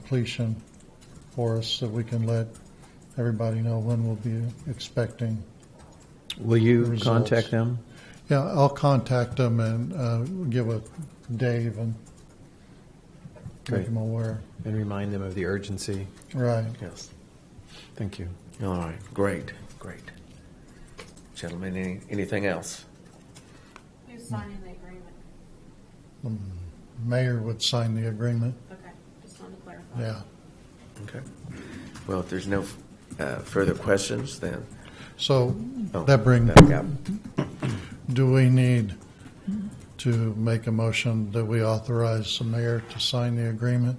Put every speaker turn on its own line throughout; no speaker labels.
completion for us so we can let everybody know when we'll be expecting.
Will you
Results.
contact them?
Yeah, I'll contact them and uh, give it Dave and make
Great.
them aware.
And remind them of the urgency?
Right.
Yes. Thank you.
All right, great, great. Gentlemen, any, anything else?
Who's signing the agreement?
The mayor would sign the agreement.
Okay, just wanted to clarify.
Yeah.
Okay. Well, if there's no uh, further questions, then.
So
oh,
that brings,
yeah.
do we need to make a motion that we authorize the mayor to sign the agreement?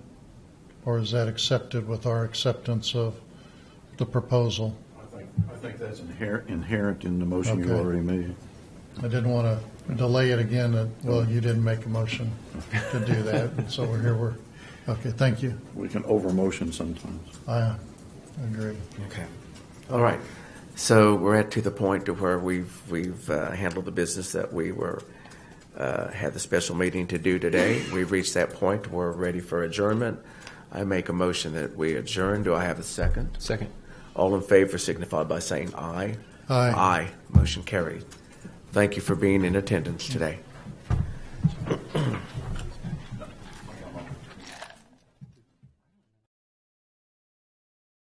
Or is that accepted with our acceptance of the proposal?
I think that's inherent, inherent in the motion you
Okay.
already made.
I didn't want to delay it again, and, well, you didn't make a motion to do that, and so we're here, we're, okay, thank you.
We can over-motion sometimes.
I agree.
Okay. All right. So we're at to the point to where we've we've uh, handled the business that we were uh, had the special meeting to do today. We've reached that point. We're ready for adjournment. I make a motion that we adjourn. Do I have a second?
Second.
All in favor signify by saying aye.
Aye.
Aye. Motion carried. Thank you for being in attendance today.